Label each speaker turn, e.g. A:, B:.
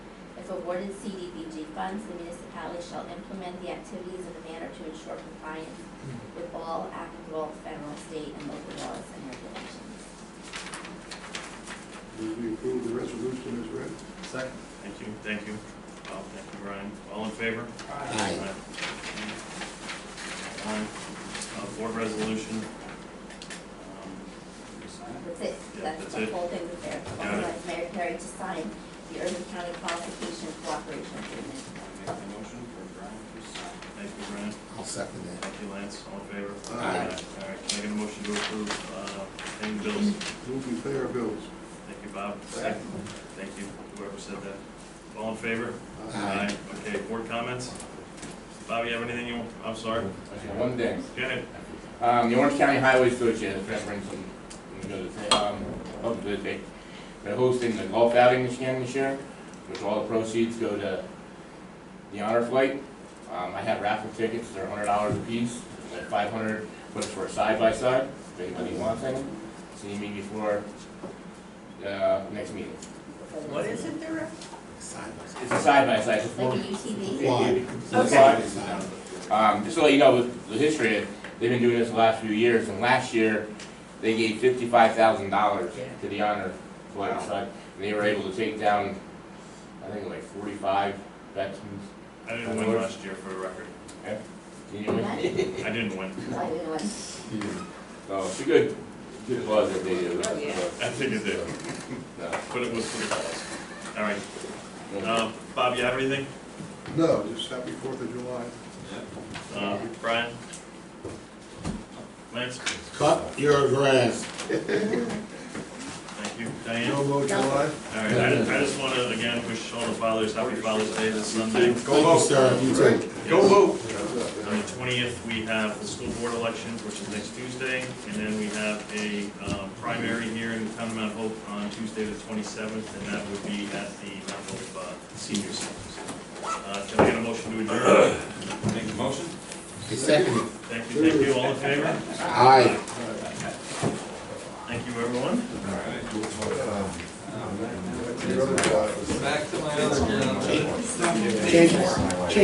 A: awarded CDBG funds, the municipality shall implement the activities in a manner to ensure compliance
B: Hmm.
A: with all applicable federal, state, and local laws and regulations.
C: Move we approve the resolution as read.
D: Second.
B: Thank you, thank you, Bob, thank you, Ryan. All in favor?
D: Aye.
B: Aye. Uh, board resolution. Um,
A: That's it,
B: Yeah,
A: that's
B: that's
A: the
B: it.
A: whole thing with there.
B: Got it.
A: Authorize Mayor Perry to sign the Urban County Qualification Cooperation Agreement.
B: I'll make the motion for Brian to sign. Thank you, Brian.
D: I'll second that.
B: Thank you, Lance. All in favor?
C: Aye.
B: All right, can I get a motion to approve, uh, pending bills?
C: Move we pay our bills.
B: Thank you, Bob.
C: Second.
B: Thank you, whoever said that. All in favor?
D: Aye.
B: Okay, board comments? Bob, you have anything you, want? I'm sorry.
E: Okay, One thing,
B: Go ahead.
E: um, the Orange County Highway Association is referencing, I'm gonna go to, um, up to date. They're hosting the golf outing this year, this year, which all the proceeds go to the honor flight. Um, I have raffle tickets, they're hundred dollars apiece, they're five hundred, but it's for a side by side, if anybody wants any. See me before, uh, next meeting.
F: What is it there?
D: Silence.
E: It's a side by side, it's
A: Like
E: four.
A: a UTV?
D: Why?
E: Okay.
D: Silence.
E: Um, just to let you know, the, the history, of- they've been doing this the last few years, and last year, they gave fifty-five thousand dollars to the honor flight side, and they were able to take down, I think like forty-five veterans.
B: I didn't win last year for the record.
E: Can you hear me?
B: I didn't win.
A: Like, you know, like-
E: So, it's a good, good cause that they do.
F: Oh, yeah.
B: I figured that,
E: No.
B: but it was for the cause. All right, um, Bob, you have anything?
C: No, just happy Fourth of July.
B: Uh, Brian? Lance?
D: Cut your grass.
B: Thank you. Diane?
C: No
B: All
C: vote July.
B: right, I just, I just want to, again, wish all the fathers, happy Father's Day this Sunday.
D: Thank you, sir. You too.
B: Go
C: vote.
B: On the twentieth, we have the school board election, which is next Tuesday, and then we have a, um, primary here in town of Mount Hope on Tuesday the twenty-seventh, and that would be at the Mount Hope uh, Senior Center. Uh, can I get a motion to adjourn?
G: Make the motion?
D: You second it.
B: Thank you, thank you, all in favor?
D: Aye.
B: Thank you, everyone.
G: All right.
C: Your other July.
G: Back to my other job.
D: Change-